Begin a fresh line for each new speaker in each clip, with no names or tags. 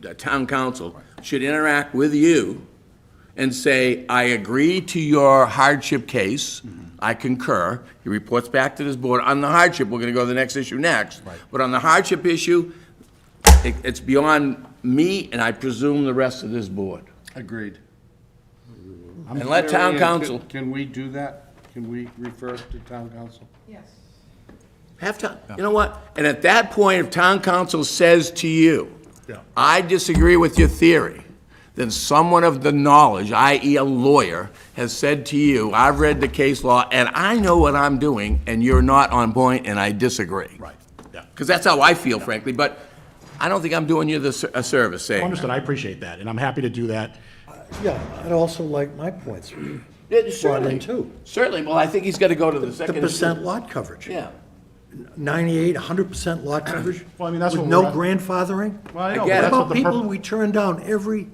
the town council should interact with you and say, I agree to your hardship case, I concur. He reports back to this board on the hardship, we're gonna go to the next issue next. But on the hardship issue, it, it's beyond me and I presume the rest of this board.
Agreed.
And let town council-
Can we do that? Can we refer to town council?
Have town, you know what? And at that point, if town council says to you, I disagree with your theory, then someone of the knowledge, i.e. a lawyer, has said to you, I've read the case law and I know what I'm doing and you're not on point and I disagree. Right,
yeah.
Because that's how I feel frankly, but I don't think I'm doing you the, ser- a service saying.
Understood, I appreciate that, and I'm happy to do that.
Uh, Yeah, I'd also like my points
Yeah,
brought
certainly.
in too.
Certainly, well, I think he's gotta go to the
The
second.
percent lot coverage.
Yeah.
98, 100% lot coverage.
Well, I mean, that's
with
what
no
we're at.
grandfathering.
Well, I
I
know,
get it.
but
What
that's what
about
the
people
purpose,
we turn down every,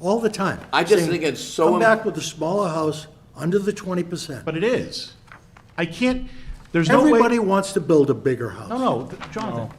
all the time?
I just
saying,
think it's so
Come
im-
back with a smaller house, under the 20%.
but it is. I can't, there's no way.
Everybody Oh. wants to build a bigger house.
No, no, th- Jonathan,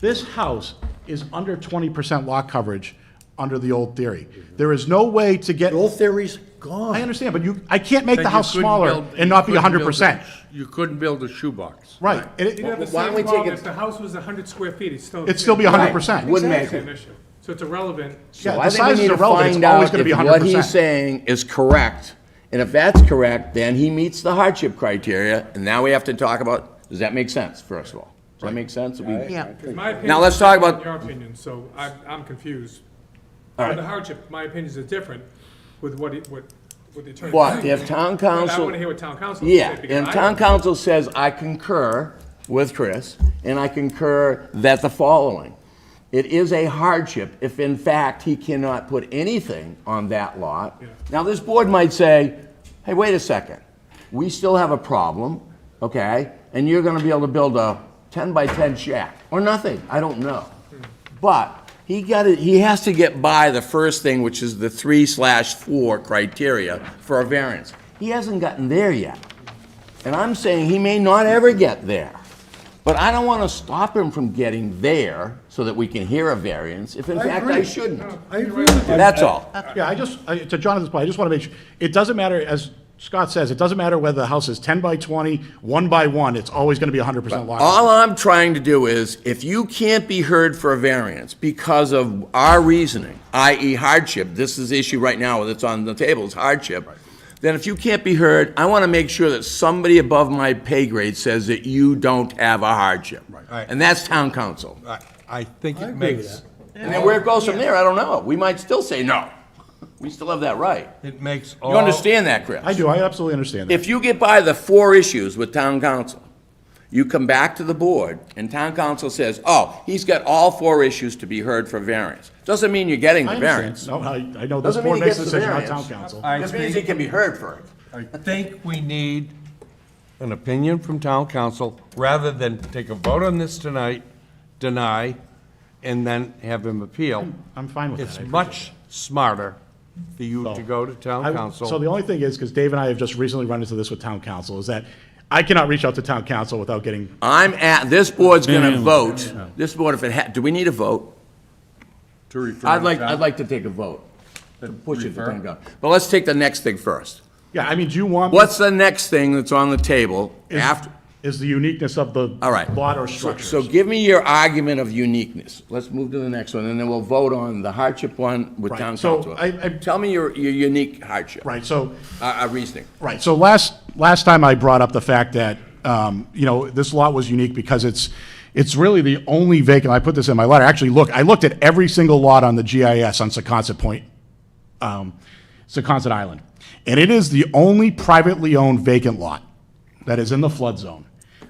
this house is under twenty percent lot coverage under the old theory. There is no way to get,
The old theory's
I
gone.
understand, but you, I can't make
Then
the
you
house
couldn't
smaller
build- you
and not be
couldn't
hundred
build a-
percent.
You couldn't build a shoebox.
Right, and it-
You'd have the
Why don't
same
we take
problem
it-
if the house was hundred square feet, it's still.
it'd still be hundred percent.
Wouldn't
It's
make
actually an
it.
issue, so it's irrelevant.
Yeah,
So
the
I think
size
we
is
need to
irrelevant. It's
find
always
out
gonna be
if what he's
100%.
saying is correct. And if that's correct, then he meets the hardship criteria, and now we have to talk about, does that make sense, first of all? Does that make sense? We-
Yeah.
It's my opinion.
Now let's talk about-
Your opinion, so I'm, I'm confused. On the hardship, my opinions are different with what, it- what, what the attorney.
But if town
But I
council.
wanna hear what town council. has to
Yeah,
say, because
and
I
town
don't-
council says, I concur with Chris, and I concur that the following. It is a hardship if in fact he cannot put anything on that lot. Now, this board might say, hey, wait a second, we still have a problem, okay? And you're gonna be able to build a ten by ten shack, or nothing, I don't know. But he got it, he has to get by the first thing, which is the three slash four criteria for a variance. He hasn't gotten there yet. And I'm saying he may not ever get there. But I don't want to stop him from getting there so that we can hear a variance, if in
I
fact I
agree.
shouldn't.
I agree with you.
That's all.
Yeah, I just, I- to Jonathan's point, I just want to make sure, it doesn't matter, as Scott says, it doesn't matter whether the house is ten by twenty, one by one, it's always going to be hundred percent lot. coverage.
All I'm trying to do is, if you can't be heard for a variance because of our reasoning, i.e. hardship, this is the issue right now that's on the table, is hardship, then if you can't be heard, I want to make sure that somebody above my pay grade says that you don't have a hardship.
Right.
And that's town council.
I, I think it
I agree with
makes,
And then where it goes from there, I don't know. We might still say no. We still have that right.
it makes all.
You understand that, Chris?
I do, I absolutely understand that.
If you get by the four issues with town council, you come back to the board, and town council says, oh, he's got all four issues to be heard for variance. Doesn't mean you're getting
I
the
understand.
variance.
No, I, I know this
Doesn't mean
board
he
makes
gets
the
the
decision, not
variance.
town council.
I
Just means he
think,
can be heard for it.
I think we need an opinion from town council, rather than take a vote on this tonight, deny, and then have him appeal.
I'm fine with that.
It's
I
much smarter for you to go to
I-
town council.
So the only thing is, because Dave and I have just recently run into this with town council, is that I cannot reach out to town council without getting,
I'm at, this board's gonna vote, this board, if it ha, do we need a vote?
To refer.
I'd
to
like,
town-
I'd like to take a vote, to push it to
Refer?
town council. But let's take the next thing first.
yeah, I mean, do you want?
What's the next thing that's on the table
is-
after?
Is the uniqueness of the.
All right.
Lot or
So-
structures.
So give me your argument of uniqueness. Let's move to the next one, and then we'll vote on the hardship one with
Right.
town
So
council.
I- I-
Tell me your, your unique hardship.
Right, so
Uh, uh, reasoning.
Right, so last, last time I brought up the fact that, um, you know, this lot was unique because it's, it's really the only vacant, I put this in my letter, actually, look, I looked at every single lot on the GIS on Secaucet Point, um, Secaucet Island, and it is the only privately owned vacant lot that is in the flood zone,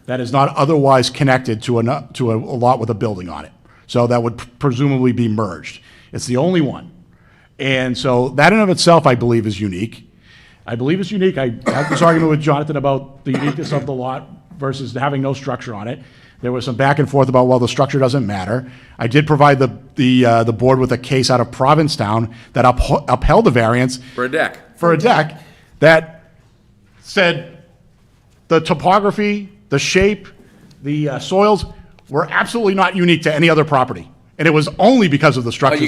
that is not otherwise connected to a, to a lot with a building on it. So that would presumably be merged. It's the only one. And so that in of itself, I believe, is unique. I believe it's unique. I had this argument with Jonathan about the uniqueness of the lot versus having no structure on it. There was some back and forth about, well, the structure doesn't matter. I did provide the, the, uh, the board with a case out of Provincetown that upho- upheld the variance
For a deck.
for a deck that said the topography, the shape, the uh, soils were absolutely not unique to any other property. And it was only because of the structure